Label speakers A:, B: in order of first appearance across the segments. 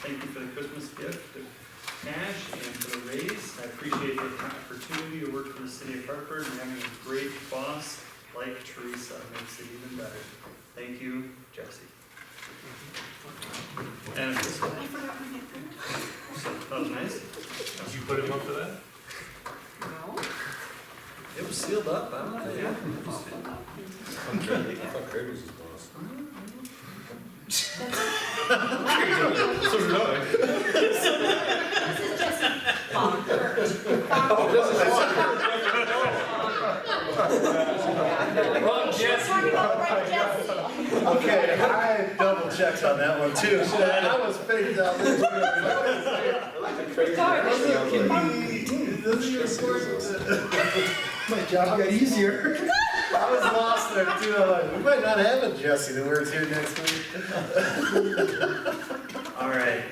A: thank you for the Christmas gift of cash and for the raise. I appreciate the opportunity to work for the city of Hartford and having a great boss like Teresa makes it even better. Thank you, Jesse. And this one,
B: I forgot my necklace.
A: that was nice.
C: Did you put him up for that?
B: No.
A: It was sealed up, I don't know. yeah.
D: Fuck Kirby's his boss.
C: So did I.
B: This is just bonkers.
C: Wrong Jesse.
B: Talking about right Jesse.
D: Okay, I double checked on that one too. I was faked out. My job got easier. I was lost there too. I'm like, we might not have a Jesse that wears here next week.
A: All right.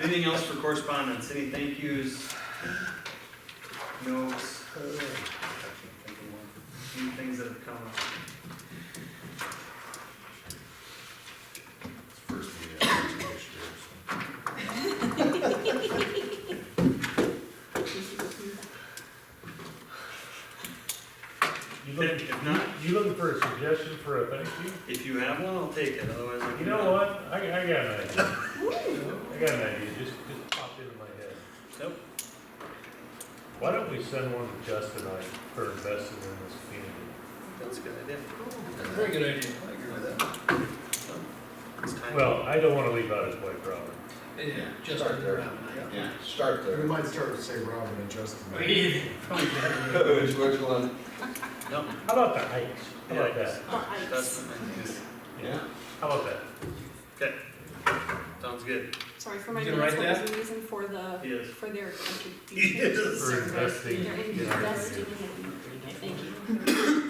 A: Anything else for correspondence? Any thank yous? Notes? I can't think of one. Any things that have come up?
D: First meeting after two years.
C: You
A: If
C: looking,
A: if not,
C: you looking for a suggestion for a thank you?
A: if you have one, I'll take it, otherwise I can.
C: You know what? I, I got an idea. I got an idea, just, just popped into my head.
A: Nope.
C: Why don't we send one to Justin and I for investing in this community?
A: That's a good idea.
D: Very good idea. I agree with that.
A: It's time.
C: Well, I don't wanna leave out his wife, Robert.
E: Yeah, just
D: Start there. Yeah, start
F: We
D: there.
F: might start to say Robin and Justin.
D: Which, which one?
A: No,
C: How about the heights? How about
A: Yeah.
C: that?
A: that's what I think.
D: Yeah.
C: How about that?
A: Okay. Sounds good.
B: Sorry for my
E: You gonna
B: notes,
E: write
B: what was the reason for the,
A: Yes.
B: for their contribution?
A: Yes.
C: For investing.
B: They're
C: in our
B: investing
C: community.
B: in, thank you.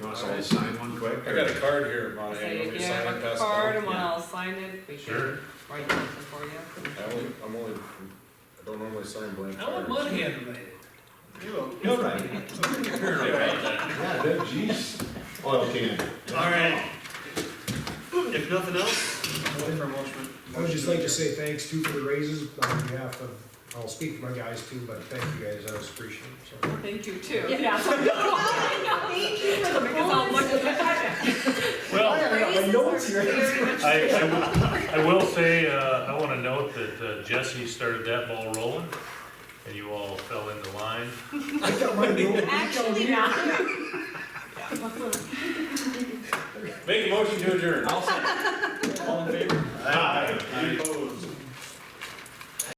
D: You want us all to sign one quick?
E: I got a card here, Monty,
G: So
E: you want
G: you
E: me to
G: can
E: sign
G: have
E: and pass
G: a
E: it
G: card,
E: down?
G: and when I'll sign it, we
C: Sure.
G: can write something for you.
D: I only, I'm only, I don't normally sign blank
E: I want
D: cards.
E: mud hand made.
D: You're right. Yeah, that, jeez. Oil can.
A: All right. If nothing else, I'll wait for a motion.
F: I would just like to say thanks too for the raises on behalf of, I'll speak for my guys too, but thank you guys, I was appreciated. so.
G: Thank you too.
B: Yeah. Thank you for the
G: Because I'll look
B: bonus.
G: at that.
C: Well,
B: Raises are very much-
C: I, I will- I will say, uh, I wanna note that uh, Jesse started that ball rolling, and you all fell into line.
F: I got my new-
B: Actually, not.
E: Make a motion to adjourn.